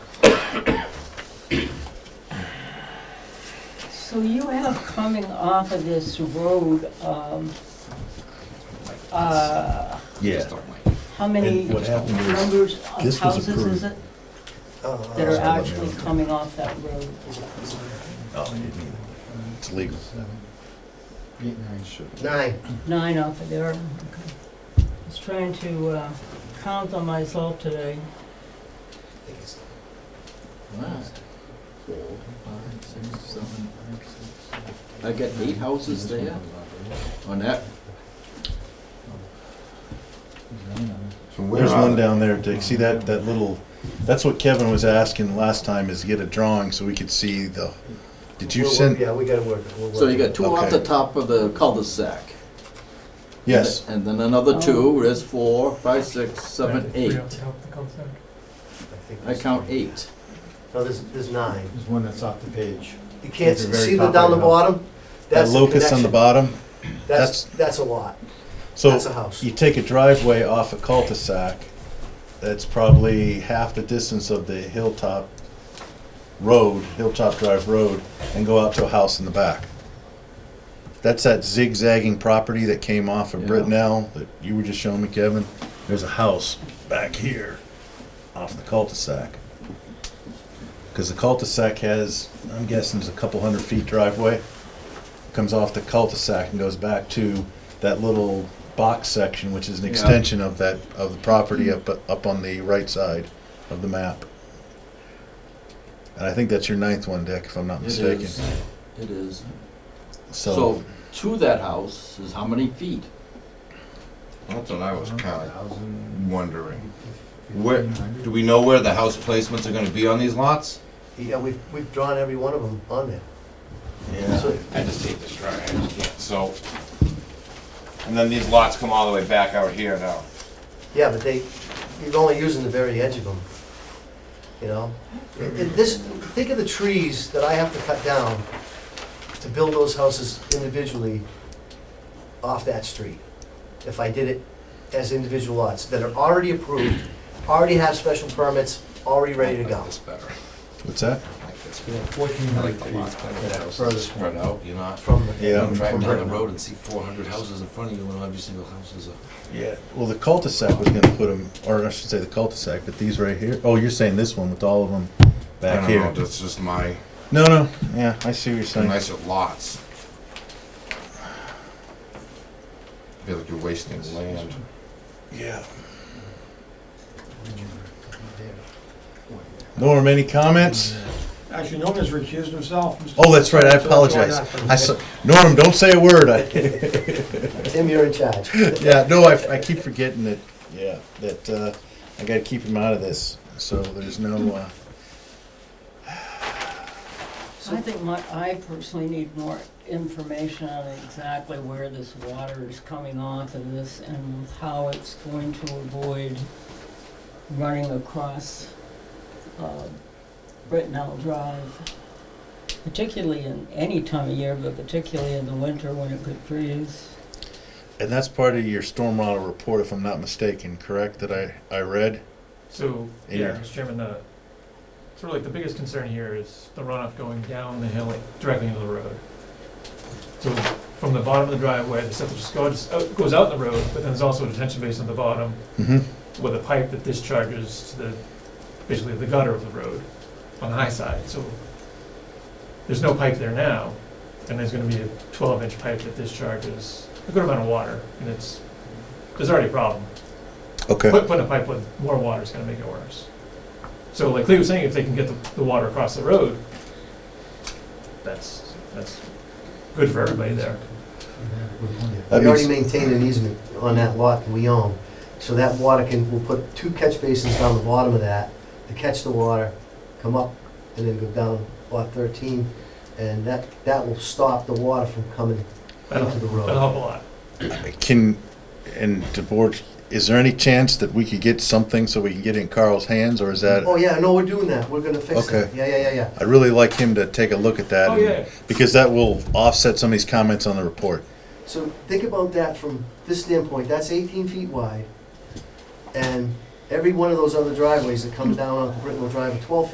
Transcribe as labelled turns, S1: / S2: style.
S1: So you have coming off of this road, um, uh,
S2: Yeah,
S1: how many
S2: And what happened is,
S1: numbers of
S2: this was
S1: houses is
S2: approved.
S1: it
S3: Oh,
S1: that are
S2: let me
S1: actually
S2: look.
S1: coming off that road?
S2: no, you didn't either. It's legal.
S4: Eight, nine, sure.
S3: Nine.
S1: Nine off of there. Okay. I was trying to uh, count on myself today.
S3: I think it's
S4: Wow.
S3: four.
S4: Five, six, seven, eight, six, seven.
S5: I got eight houses there on that.
S6: From where
S2: There's
S6: are
S2: one
S6: they?
S2: down there, Dick. See that, that little, that's what Kevin was asking last time is get a drawing so we could see the, did you
S3: We'll work-
S2: send?
S3: Yeah, we gotta work. we'll
S5: So
S3: work.
S5: you got two off the
S2: Okay.
S5: top of the cul-de-sac.
S2: Yes,
S5: And then another two, there's four, five, six, seven, eight.
S3: think
S5: I
S3: there's-
S5: count eight.
S3: No, there's, there's nine.
S4: There's one that's off the page.
S3: You can't,
S4: These are very
S3: see the down the
S4: popular.
S3: bottom?
S2: that
S3: That's the
S2: locus on the
S3: connection.
S2: bottom.
S3: That's, that's a lot.
S2: So
S3: That's a house.
S2: you take a driveway off a cul-de-sac, that's probably half the distance of the hilltop road, Hilltop Drive Road, and go out to a house in the back. That's that zigzagging property that came off of
S5: Yeah.
S2: Brittenell that you were just showing me, Kevin. There's a house back here off the cul-de-sac. Because the cul-de-sac has, I'm guessing it's a couple hundred feet driveway. Comes off the cul-de-sac and goes back to that little box section, which is an
S5: Yeah.
S2: extension of that, of the property up, up on the right side of the map. And I think that's your ninth one, Dick, if I'm not
S5: It
S2: mistaken.
S5: is. It is.
S2: So,
S5: So to that house is how many feet?
S6: That's what I was kind
S4: Thousand,
S6: of wondering.
S4: fifteen
S6: Where-
S4: hundred.
S6: Do we know where the house placements are gonna be on these lots?
S3: Yeah, we've, we've drawn every one of them on there. So-
S6: I just hate this drawing, I just can't, so. And then these lots come all the way back out here now.
S3: Yeah, but they, you're only using the very edge of them, you know? And and this, think of the trees that I have to cut down to build those houses individually off that street. If I did it as individual lots that are already approved, already have special permits, already ready to go.
S6: This better,
S2: what's that?
S6: I like this.
S4: Yeah, fourteen
S6: I
S4: hundred
S6: like the
S4: feet.
S6: lots better,
S4: Yeah,
S6: the houses are
S4: furthest
S6: spread
S4: one.
S6: out, you're not,
S3: From, the-
S2: Yeah.
S6: I'm driving down the
S4: Right.
S6: road and see four hundred houses in front of you and every single house is a.
S2: Yeah, well, the cul-de-sac was gonna put them, or I should say the cul-de-sac, but these right here, oh, you're saying this one with all of them
S6: I
S2: back
S6: don't know,
S2: here?
S6: That's just my,
S2: No, no, yeah, I see what you're saying.
S6: nicer lots. I Feel like you're wasting land.
S2: Yeah.
S4: There.
S2: Norm, any comments?
S7: Actually, Norm has recused himself. Mr.
S2: Oh, that's right,
S7: So
S2: I
S7: that's why
S2: apologize. I saw, Norm, don't say a word. I-
S3: Tim, you're in charge.
S2: Yeah, no, I, I keep forgetting that, yeah, that, uh, I gotta keep him out of this, so there's no, uh,
S1: I think my, I personally need more information on exactly where this water is coming off of this and how it's going to avoid running across, uh, Brittenell Drive. Particularly in any time of year, but particularly in the winter when it could freeze.
S2: and that's part of your stormwater report, if I'm not mistaken, correct, that I, I read?
S8: So,
S2: In
S8: yeah,
S2: your-
S8: Mr. Chairman, the, sort of like the biggest concern here is the runoff going down the hill, like directly into the road. So from the bottom of the driveway, the septic just goes, out- goes out the road, but then there's also a detention basin at the bottom
S2: Mm-hmm.
S8: with a pipe that discharges to the, basically the gutter of the road on the high side, so there's no pipe there now, and there's gonna be a twelve inch pipe that discharges a good amount of water, and it's, there's already a problem.
S2: Okay.
S8: Put, putting a pipe with more water is gonna make it worse. So like Lee was saying, if they can get the, the water across the road, that's, that's good for everybody there.
S2: That
S3: We already
S2: makes-
S3: maintain an easement on that lot that we own, so that water can, we'll put two catch basins down the bottom of that to catch the water, come up, and then go down lot thirteen, and that, that will stop the water from coming
S8: That'll,
S3: into the
S8: that'll
S3: road.
S8: help a lot.
S2: Can, and the board, is there any chance that we could get something so we can get it in Carl's hands, or is that,
S3: Oh, yeah, no, we're doing that, we're gonna fix that,
S2: Okay.
S3: yeah, yeah, yeah, yeah.
S2: I'd really like him to take a look at that.
S8: Oh,
S2: and-
S8: yeah.
S2: Because that will offset some of these comments on the report.
S3: So think about that from this standpoint, that's eighteen feet wide, and every one of those other driveways that come down on Brittenell Drive are twelve feet